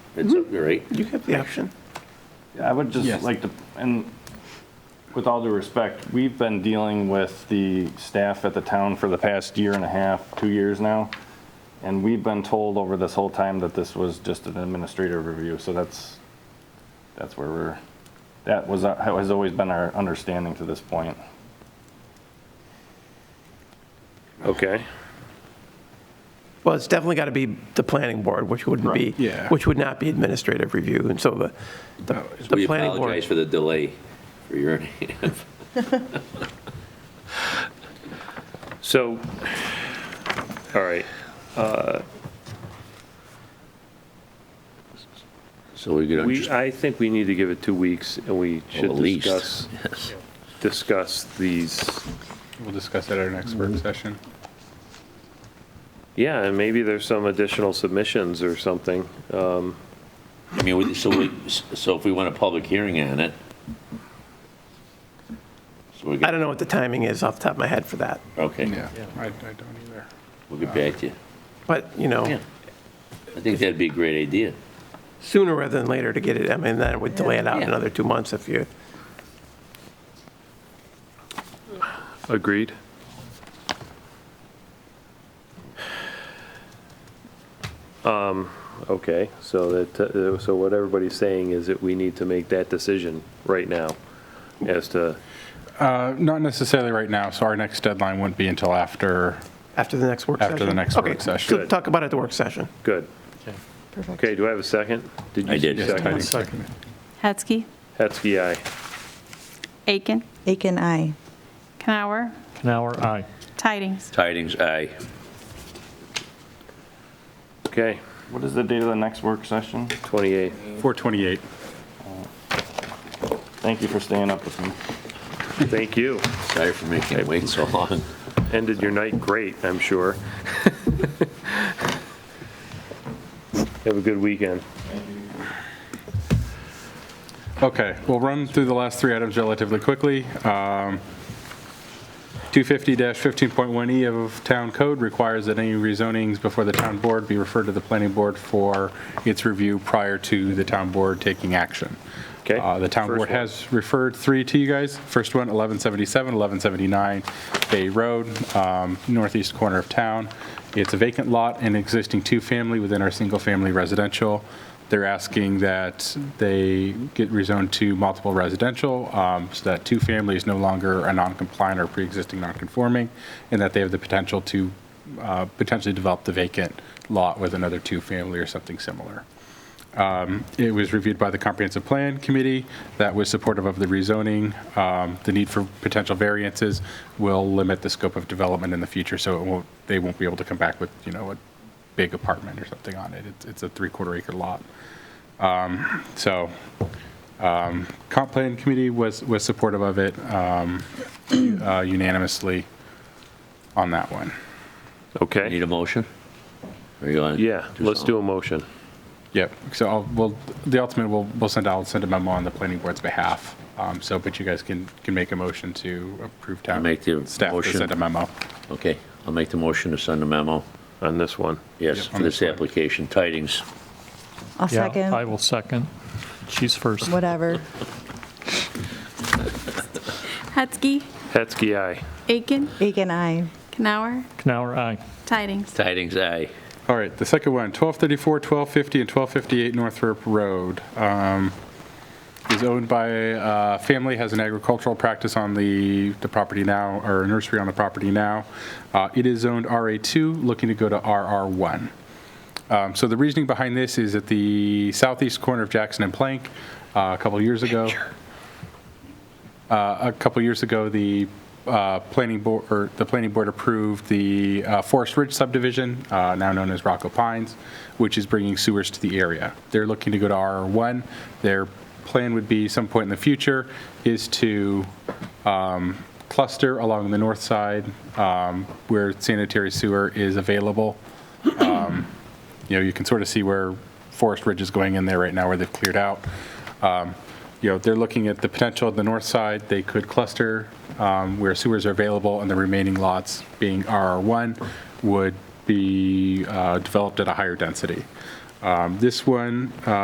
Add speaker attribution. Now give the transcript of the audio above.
Speaker 1: It's, up there, right?
Speaker 2: You have the option.
Speaker 3: I would just
Speaker 4: Yes.
Speaker 3: like to, and with all due respect, we've been dealing with the staff at the town for the past year and a half, two years now. And we've been told over this whole time that this was just an administrative review, so that's, that's where we're, that was, our- has always been our understanding to this point.
Speaker 1: Okay.
Speaker 2: Well, it's definitely got to be the planning board, which wouldn't be,
Speaker 4: yeah.
Speaker 2: which would not be administrative review. And so the, the-
Speaker 1: We
Speaker 2: the planning
Speaker 1: apologize
Speaker 2: board.
Speaker 1: for the delay for your. So, all right. uh,
Speaker 5: So we could
Speaker 1: We,
Speaker 5: just,
Speaker 1: I think we need to give it two weeks and we should
Speaker 5: at least.
Speaker 1: discuss, discuss these.
Speaker 4: We'll discuss that at our next work session.
Speaker 1: Yeah, and maybe there's some additional submissions or something.
Speaker 5: I mean, we- so we, so if we want a public hearing on it. So we
Speaker 2: I
Speaker 5: could,
Speaker 2: don't know what the timing is off the top of my head for that,
Speaker 5: okay,
Speaker 4: Yeah, I, I don't either.
Speaker 5: we'll get back to you.
Speaker 2: but, you know,
Speaker 5: Yeah. I think that'd be a great idea.
Speaker 2: sooner rather than later to get it, I mean, then it would delay it out
Speaker 5: Yeah.
Speaker 2: another two months if you,
Speaker 1: Agreed. Um, okay, so that, uh, so what everybody's saying is that we need to make that decision right now as to,
Speaker 4: Uh, Not necessarily right now, so our next deadline wouldn't be until after,
Speaker 2: after the next work session.
Speaker 4: After the next
Speaker 2: Okay,
Speaker 4: work session.
Speaker 2: so
Speaker 4: Good.
Speaker 2: Talk about it at the work session.
Speaker 1: good.
Speaker 6: Perfect.
Speaker 1: Okay, do I have a second?
Speaker 5: I did.
Speaker 1: you
Speaker 4: yes,
Speaker 1: second?
Speaker 4: Heidi, second.
Speaker 7: Hetzke,
Speaker 1: Hetzke, aye.
Speaker 7: Aiken,
Speaker 6: Aiken, aye.
Speaker 7: Canower,
Speaker 8: Canower, aye.
Speaker 7: Tidings.
Speaker 5: Tidings, aye.
Speaker 1: Okay,
Speaker 3: What is the date of the next work session?
Speaker 1: 28.
Speaker 4: 428.
Speaker 3: Thank you for staying up with me.
Speaker 1: Thank you.
Speaker 5: Sorry for making it wait so long.
Speaker 1: Ended your night great, I'm sure. Have a good weekend.
Speaker 4: Okay, we'll run through the last three items relatively quickly. Um, 250-15.1E E of Town Code requires that any rezonings before the town board be referred to the planning board for its review prior to the town board taking action.
Speaker 1: Okay.
Speaker 4: Uh, The town
Speaker 1: First
Speaker 4: board
Speaker 1: one.
Speaker 4: has referred three to you guys. First one, 1177, 1179 Bay Road, um, northeast corner of town. It's a vacant lot and existing two-family within our single-family residential. They're asking that they get rezoned to multiple residential, um, so that two-family is no longer a non-compliant or pre-existing non-conforming, and that they have the potential to uh, potentially develop the vacant lot with another two-family or something similar. It was reviewed by the Comprehensive Plan Committee that was supportive of the rezoning. Um, The need for potential variances will limit the scope of development in the future, so it won't, they won't be able to come back with, you know, a big apartment or something on it. It's- It's a three-quarter acre lot. Um, So um, Comp Plan Committee was, was supportive of it um, uh, unanimously on that one.
Speaker 1: Okay,
Speaker 5: Need a motion? Or you want?
Speaker 1: yeah, let's do a motion.
Speaker 4: Yep, so I'll, well, the ultimate, we'll, we'll send, I'll send a memo on the planning board's behalf. Um, so, but you guys can, can make a motion to approve town.
Speaker 5: Make the
Speaker 4: Staff to
Speaker 5: motion.
Speaker 4: send a memo.
Speaker 5: Okay, I'll make the motion to send a memo.
Speaker 1: on this one.
Speaker 5: Yes,
Speaker 4: Yep, on
Speaker 5: for this
Speaker 4: this one.
Speaker 5: application, tidings.
Speaker 6: I'll
Speaker 8: Yeah, I
Speaker 6: second,
Speaker 8: will second. She's first.
Speaker 6: whatever.
Speaker 7: Hetzke,
Speaker 1: Hetzke, aye.
Speaker 7: Aiken,
Speaker 6: Aiken, aye.
Speaker 7: Canower,
Speaker 8: Canower, aye.
Speaker 7: Tidings.
Speaker 5: Tidings, aye.
Speaker 4: All right, the second one, 1234, 1250, and 1258 Northrop Road. Um, Is owned by a family, has an agricultural practice on the, the property now, or a nursery on the property now. Uh, It is zoned RA2, looking to go to RR1. Um, So the reasoning behind this is at the southeast corner of Jackson and Plank, uh, a couple years ago. Uh, A couple years ago, the uh, planning board, or the planning board approved the uh, Forest Ridge subdivision, uh, now known as Rocco Pines, which is bringing sewers to the area. They're looking to go to RR1. Their plan would be some point in the future is to um, cluster along the north side um, where sanitary sewer is available. Um, You know, you can sort of see where Forest Ridge is going in there right now, where they've cleared out. Um, You know, they're looking at the potential of the north side, they could cluster um, where sewers are available, and the remaining lots, being RR1, would be uh, developed at a higher density. Um, This one